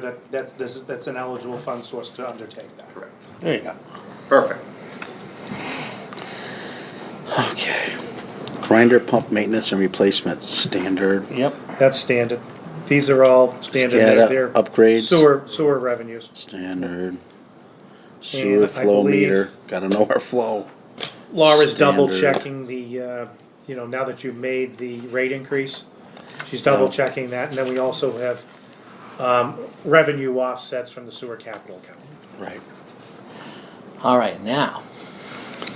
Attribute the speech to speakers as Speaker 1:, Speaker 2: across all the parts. Speaker 1: That, that's, this is, that's an eligible fund source to undertake that.
Speaker 2: Correct.
Speaker 3: There you
Speaker 1: Yeah.
Speaker 3: go.
Speaker 2: Perfect.
Speaker 3: Okay.
Speaker 4: Grinder pump maintenance and replacement, standard.
Speaker 3: Yep.
Speaker 1: That's standard. These are all standard. They're-
Speaker 4: SCADA
Speaker 1: they're
Speaker 4: upgrades.
Speaker 1: Sewer, sewer revenues.
Speaker 4: Standard. Sewer
Speaker 1: I
Speaker 4: flow
Speaker 1: believe-
Speaker 4: meter, gotta know our flow.
Speaker 1: Laura's double
Speaker 4: Standard.
Speaker 1: checking the, uh, you know, now that you've made the rate increase, she's double checking that, and then we also have, um, revenue offsets from the sewer capital account.
Speaker 4: Right,
Speaker 3: All right, now.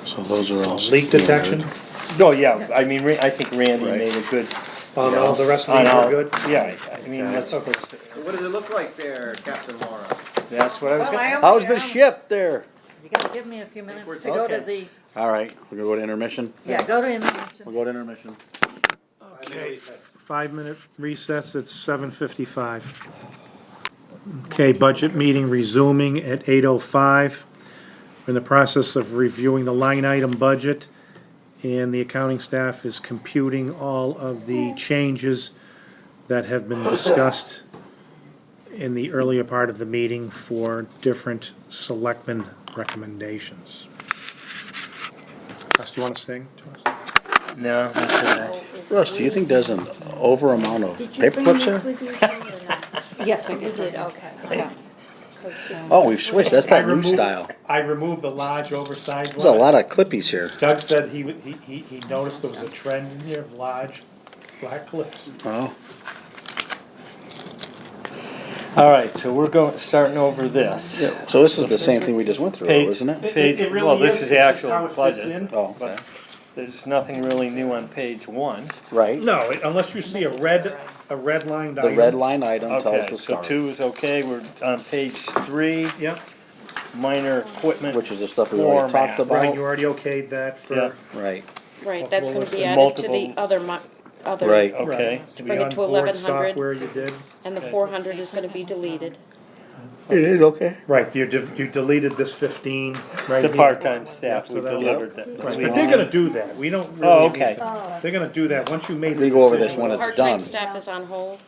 Speaker 4: so those are all.
Speaker 1: Leak detection,
Speaker 4: standard.
Speaker 5: No, yeah, I mean, Ra- I think Randy
Speaker 4: Right.
Speaker 5: made a good.
Speaker 1: on all the rest of
Speaker 5: on
Speaker 1: these are
Speaker 5: all-
Speaker 1: good?
Speaker 5: Yeah, I I mean, that's,
Speaker 1: Okay.
Speaker 2: So what does it look like there, Captain Laura?
Speaker 5: that's what I was
Speaker 6: Well, I
Speaker 5: gonna,
Speaker 6: am
Speaker 4: How's
Speaker 6: here.
Speaker 4: the ship there?
Speaker 6: You gotta give me a few minutes to go to the,
Speaker 4: All right, we're gonna go to intermission?
Speaker 6: yeah, go to
Speaker 4: We'll
Speaker 6: intermission.
Speaker 4: go to intermission.
Speaker 1: Okay, five-minute recess, it's seven fifty-five. Okay, budget meeting resuming at eight oh five. We're in the process of reviewing the line item budget, and the accounting staff is computing all of the changes that have been discussed in the earlier part of the meeting for different selectmen recommendations. Russ, do you wanna sing to us?
Speaker 5: no, that's all right.
Speaker 4: Russ, do you think there's an over amount of
Speaker 7: Did you
Speaker 4: paper
Speaker 7: bring
Speaker 4: clips here?
Speaker 7: this with you? Jane, or not?
Speaker 6: Yes, I
Speaker 7: You did, okay. yeah. 'Cause, um,
Speaker 4: Oh, we've switched, that's
Speaker 1: I
Speaker 4: that new
Speaker 1: removed-
Speaker 4: style.
Speaker 1: I removed the large oversized
Speaker 4: There's a
Speaker 1: one.
Speaker 4: lot of clippies here.
Speaker 1: Doug said he, would- he, he he noticed there was a trend in here of large black clips.
Speaker 4: Oh,
Speaker 5: All right, so we're going, starting over this.
Speaker 4: so this is the same thing we just went through,
Speaker 5: Page-
Speaker 4: isn't it?
Speaker 5: Page,
Speaker 1: It- it really
Speaker 5: well, this is the
Speaker 1: it's just
Speaker 5: actual
Speaker 1: how it fits
Speaker 5: budget.
Speaker 1: in.
Speaker 4: Oh, okay,
Speaker 5: There's nothing really new on page one.
Speaker 4: right.
Speaker 1: No, it- unless you see a red, a red line
Speaker 4: The
Speaker 1: item.
Speaker 4: red line item tells
Speaker 5: Okay,
Speaker 4: the
Speaker 5: so
Speaker 4: story,
Speaker 5: two is okay, we're on page three,
Speaker 1: Yep,
Speaker 5: minor equipment.
Speaker 4: which is the stuff we already
Speaker 5: format.
Speaker 4: talked
Speaker 1: right, you
Speaker 4: about.
Speaker 1: already okayed that
Speaker 5: Yeah.
Speaker 1: for.
Speaker 4: Right,
Speaker 7: Right, that's gonna be
Speaker 5: Multiple-
Speaker 7: added to the other mon, other.
Speaker 4: right.
Speaker 5: Okay,
Speaker 1: To be
Speaker 7: Bring it
Speaker 1: on
Speaker 7: to
Speaker 1: board
Speaker 7: 1100.
Speaker 1: Software you did.
Speaker 7: And the four hundred is gonna be deleted.
Speaker 4: It is, okay.
Speaker 1: Right, you div- you deleted this fifteen right
Speaker 5: the
Speaker 1: here.
Speaker 5: part-time staff,
Speaker 1: so
Speaker 5: we
Speaker 1: that'll-
Speaker 5: delivered that.
Speaker 1: Right, but they're gonna do that, we don't really.
Speaker 5: Oh,
Speaker 1: need
Speaker 5: okay.
Speaker 1: that. They're gonna do that, once you made the
Speaker 4: We
Speaker 1: decision.
Speaker 4: go over this when it's
Speaker 7: Part-time
Speaker 4: done.
Speaker 7: staff is on hold,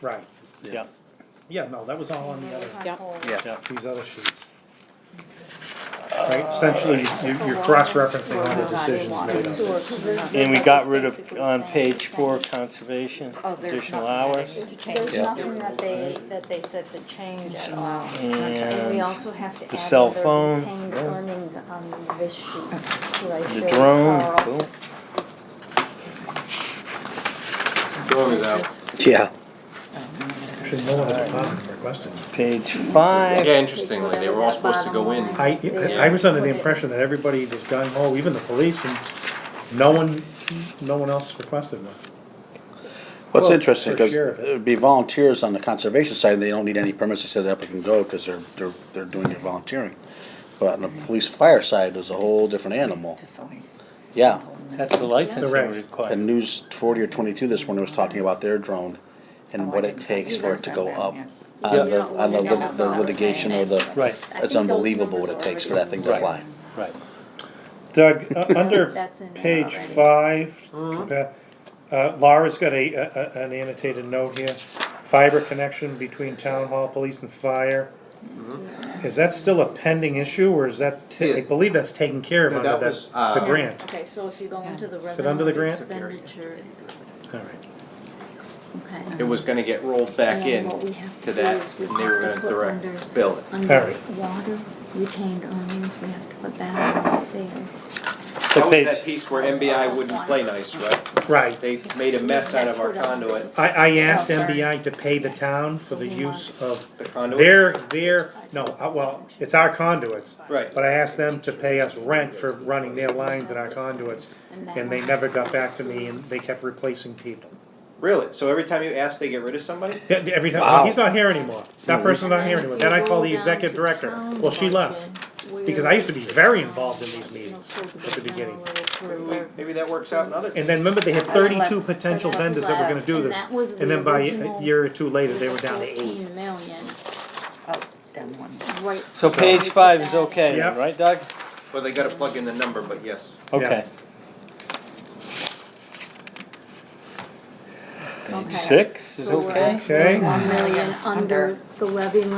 Speaker 1: Right,
Speaker 5: Yeah,
Speaker 1: yeah, no, that was all on the other,
Speaker 7: yep.
Speaker 5: yeah.
Speaker 1: these other sheets. Right, essentially, you, you're cross-referencing all the decisions made on this.
Speaker 5: And we got rid of, on page four, conservation,
Speaker 8: Oh,
Speaker 5: additional hours.
Speaker 7: Change.
Speaker 8: There's nothing that they, that they said to change at all.
Speaker 4: Mm.
Speaker 8: And we
Speaker 5: And
Speaker 8: also have to add.
Speaker 5: cell
Speaker 8: other
Speaker 5: phone.
Speaker 8: retained
Speaker 5: Yeah.
Speaker 8: Earnings on this sheet. who I
Speaker 5: the
Speaker 8: showed
Speaker 5: drone,
Speaker 8: Carl.
Speaker 5: boom.
Speaker 2: Going is out.
Speaker 4: Yeah.
Speaker 1: Should know what the department requested.
Speaker 5: page five,
Speaker 2: Yeah, interestingly, they were all supposed to go in.
Speaker 1: I, I was under the impression that everybody was gung ho, even the police, and no one, no one else requested one.
Speaker 4: What's
Speaker 1: Well,
Speaker 4: interesting,
Speaker 1: for
Speaker 4: because
Speaker 1: sure.
Speaker 4: it would be volunteers on the conservation side, and they don't need any permits to set it up and go, because they're, they're, they're doing their volunteering. But on the police fire side, there's a whole different animal. Yeah,
Speaker 5: that's the licensing
Speaker 1: rest.
Speaker 4: and
Speaker 5: requirement.
Speaker 4: News forty or twenty-two this morning was talking about their drone and what it takes for it to go up on the, on the lit- the litigation or the,
Speaker 5: Right,
Speaker 4: it's unbelievable what it takes for that thing to fly.
Speaker 5: right.
Speaker 1: Doug, uh, under
Speaker 8: That's in there
Speaker 1: page
Speaker 8: already.
Speaker 1: five,
Speaker 8: Mm-hmm.
Speaker 1: compa- uh, Laura's got a, a- a- an annotated note here, fiber connection between town hall, police and fire.
Speaker 8: Mm-hmm.
Speaker 1: Is that still a pending issue, or is that, ta- I
Speaker 2: Yeah.
Speaker 1: believe that's taken care of
Speaker 2: No,
Speaker 1: under
Speaker 2: that
Speaker 1: that,
Speaker 2: was, uh,
Speaker 1: the grant,
Speaker 8: Okay, so if you go into the revenue.
Speaker 1: Is it under the grant?
Speaker 8: Expenditure,
Speaker 1: all right.
Speaker 8: okay.
Speaker 2: It was gonna get rolled back in
Speaker 8: And what we have
Speaker 2: to
Speaker 8: do
Speaker 2: that,
Speaker 8: is we
Speaker 2: and they were
Speaker 8: have to
Speaker 2: gonna
Speaker 8: put
Speaker 2: direct
Speaker 8: under-
Speaker 2: bill it.
Speaker 8: Under
Speaker 1: Alright.
Speaker 8: water, retained earnings, we have to put that right there.
Speaker 2: That was
Speaker 5: page-
Speaker 2: that piece where MBI wouldn't play nice, right?
Speaker 1: Right,
Speaker 2: They made a mess out of our conduit,
Speaker 1: I, I asked
Speaker 8: Oh, sorry.
Speaker 1: MBI to pay the town for the use of
Speaker 2: the conduit.
Speaker 1: their, their, no, uh, well, it's our conduits.
Speaker 2: Right.
Speaker 1: But I asked them to pay us rent for running their lines and our conduits, and they never got back to me, and they kept replacing people.
Speaker 2: Really? So every time you ask, they get rid of somebody?
Speaker 1: Yeah, Every time, well, he's not here anymore, that person's not here anymore, then I call the executive director, well, she left. Because I used to be very involved in these meetings at the beginning,
Speaker 2: Maybe that works out in other.
Speaker 1: and then remember, they had thirty-two potential vendors that were gonna do this, and then by a year or two later, they were down to eight.
Speaker 8: Fourteen million,
Speaker 7: Oh, done one.
Speaker 8: right.
Speaker 5: So page five is okay,
Speaker 1: Yep.
Speaker 5: then, right, Doug?
Speaker 2: Well, they gotta plug in the number, but yes.
Speaker 5: Okay.
Speaker 9: Six is okay.
Speaker 10: Okay.
Speaker 8: One million under the levy